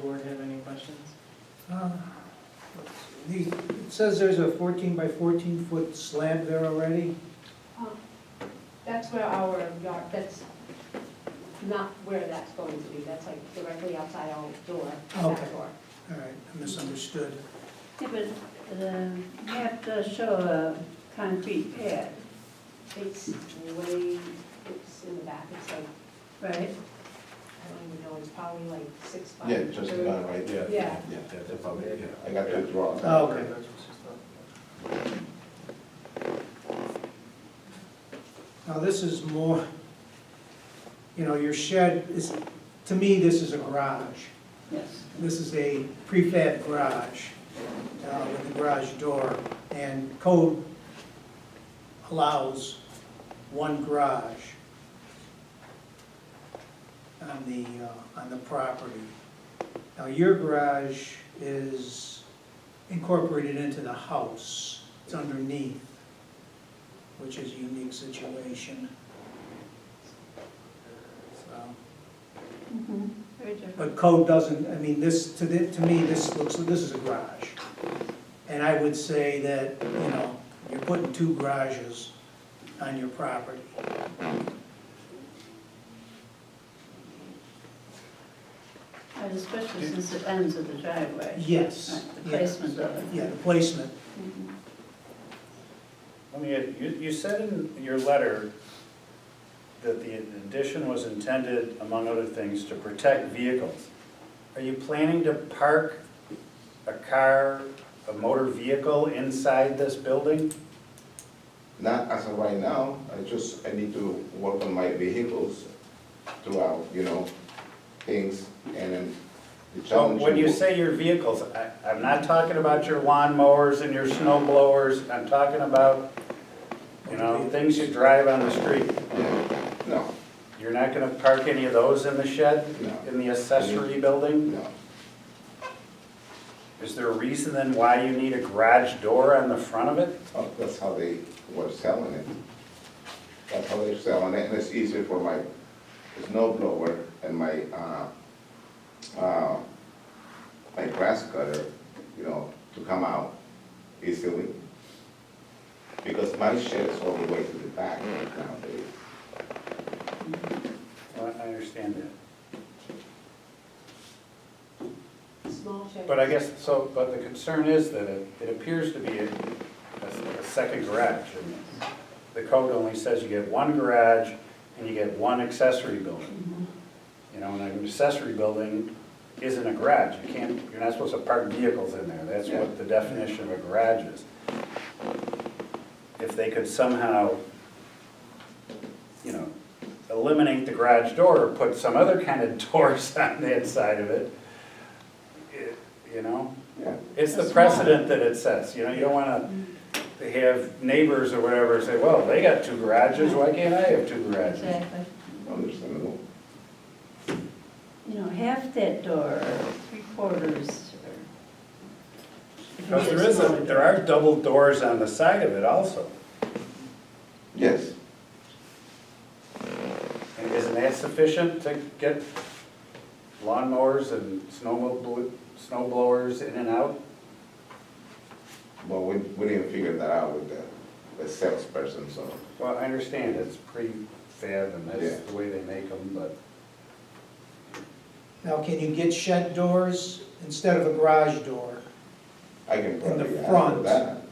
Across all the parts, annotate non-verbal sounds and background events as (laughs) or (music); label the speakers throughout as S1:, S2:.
S1: Board have any questions?
S2: Uh, The, it says there's a fourteen by fourteen foot slab there already?
S3: Um, That's where our yard, that's not where that's going to be, that's like directly outside our door,
S2: Okay.
S3: back door.
S2: All right, I misunderstood.
S4: Yeah, but uh, you have to show a concrete pad,
S3: It's way, it's in the back, it's like,
S4: right?
S3: I don't even know, it's probably like six by
S5: Yeah, just
S3: thirty.
S5: about right there.
S3: Yeah.
S5: Yeah,
S6: That's about it, yeah.
S5: I got that wrong.
S2: Oh, okay. Now, this is more, you know, your shed is, to me, this is a garage.
S4: Yes.
S2: This is a prefab garage uh, with a garage door, and code allows one garage on the, uh, on the property. Now, your garage is incorporated into the house, it's underneath, which is a unique situation. So.
S4: Mhm. Very different.
S2: But code doesn't, I mean, this, to the, to me, this looks, this is a garage. And I would say that, you know, you're putting two garages on your property.
S4: And Especially since it ends at the driveway.
S2: Yes.
S4: Right, The
S2: yeah.
S4: placement of
S2: Yeah,
S4: it.
S2: the placement,
S4: Mhm.
S6: Let me, add- you, you said in your letter that the addition was intended, among other things, to protect vehicles. Are you planning to park a car, a motor vehicle inside this building?
S5: Not as of right now, I just, I need to work on my vehicles throughout, you know, things, and then the
S6: So
S5: challenge.
S6: Oh, when you say your vehicles, I, I'm not talking about your lawn mowers and your snow blowers, I'm talking about, you know, things you drive on the street.
S5: Yeah, No,
S6: You're not gonna park any of those in the shed,
S5: No.
S6: in the accessory building?
S5: no,
S6: Is there a reason then why you need a garage door on the front of it?
S5: Oh, that's how they were selling it. That's how they're selling it, and it's easier for my snow blower and my, uh, uh, my grass cutter, you know, to come out easily. Because my shed is all the way to the back nowadays.
S6: Well, I understand that.
S3: Small shed.
S6: But I guess, so, but the concern is that it, it appears to be a, a- a second garage. and The code only says you get one garage and you get one accessory building. You know, and an accessory building isn't a garage. You can't, you're not supposed to park vehicles in there. That's what the definition of a garage is. If they could somehow, you know, eliminate the garage door or put some other kind of (laughs) doors on the inside of it, it- you know?
S5: Yeah,
S6: It's the
S4: That's
S6: precedent that it sets, you know, you don't wanna have neighbors or whatever say, well, they got two garages, why can't I have two garages?
S4: Exactly.
S5: understandable.
S4: You know, half that door, or three quarters, or.
S6: Because there is, a- there are double doors on the side of it also,
S5: Yes,
S6: and isn't that sufficient to get lawnmowers and snowmobl- snow blowers in and out?
S5: but we, we didn't figure that out with the, the salesperson, so.
S6: Well, I understand, it's prefab and
S5: Yeah.
S6: that's the way they make them, but
S2: now can you get shed doors instead of a garage door?
S5: I can
S2: the
S5: probably handle
S2: front.
S5: that.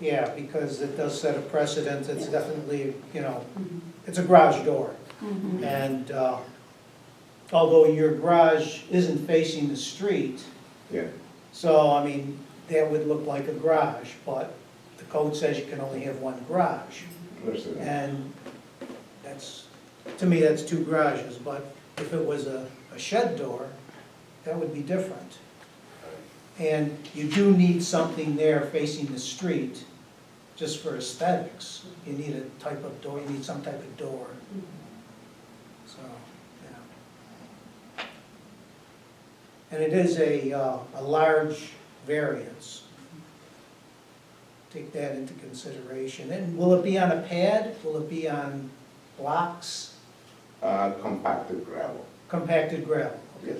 S2: Yeah, because it does set a precedent, it's
S4: Yeah.
S2: definitely, you know,
S4: Mm-hmm.
S2: it's a garage door.
S4: Mhm.
S2: And uh, although your garage isn't facing the street,
S5: Yeah,
S2: So, I mean, that would look like a garage, but the code says you can only have one garage.
S5: understand.
S2: And that's, to me, that's two garages, but if it was a, a shed door, that would be different. And you do need something there facing the street, just for aesthetics. You need a type of door, you need some type of door.
S3: Mm-hmm.
S2: So, yeah. And it is a, uh, a large variance. Take that into consideration. And will it be on a pad? Will it be on blocks,
S5: Uh, compacted gravel,
S2: compacted gravel?
S5: yes.